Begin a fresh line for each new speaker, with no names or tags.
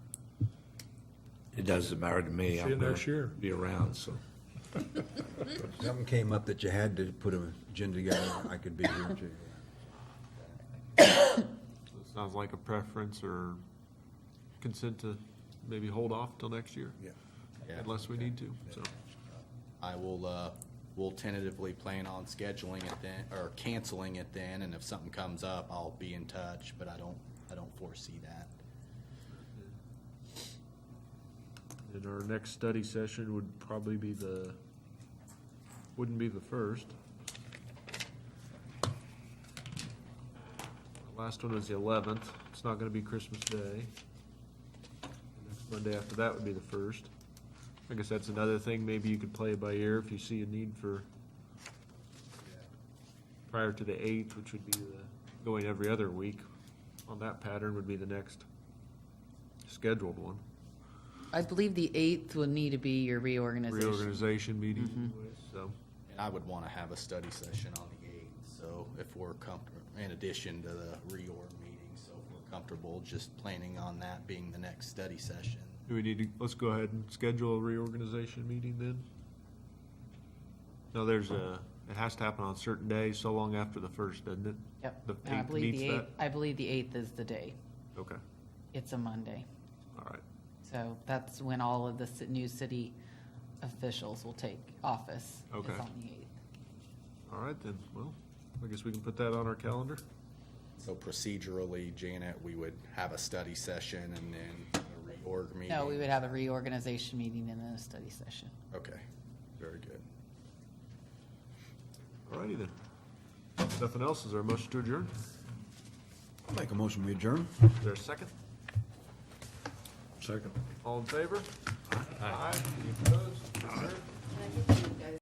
It doesn't matter to me.
See
I'm
you
gonna
next year.
Be around, so.
Something came up that you had to put an agenda together, I could be here too.
Sounds like a preference or consent to maybe hold off till next year,
Yeah.
Yeah,
unless we need to, so.
I will, uh, we'll tentatively plan on scheduling it then, or canceling it then, and if something comes up, I'll be in touch, but I don't, I don't foresee that.
And our next study session would probably be the, wouldn't be the first. Last one was the eleventh, it's not gonna be Christmas Day. Next Monday after that would be the first. I guess that's another thing, maybe you could play it by ear if you see a need for prior to the eighth, which would be the, going every other week, on that pattern would be the next scheduled one.
I believe the eighth would need to be your reorganization.
reorganization
Mm-hmm.
meeting, so.
And I would wanna have a study session on the eighth, so if we're comfortable, in addition to the reorg meeting, so if we're comfortable just planning on that being the next study session.
Do we need to, let's go ahead and schedule a reorganization meeting then? No, there's a, it has to happen on certain days, so long after the first, doesn't it?
Yep.
The
And I
eighth
believe the
meets
eighth, I believe the eighth is the day.
that? Okay,
It's a Monday.
all right.
So that's when all of the ci- new city officials will take office. is
Okay.
on the 8th.
All right then, well, I guess we can put that on our calendar.
So procedurally, Janet, we would have a study session and then a reorg meeting.
No, we would have a reorganization meeting and then a study session.
Okay, very good.
All righty then. If Nothing else, is there a motion to adjourn?
Make a motion, we adjourn?
Is there a second?
Second.
All in favor?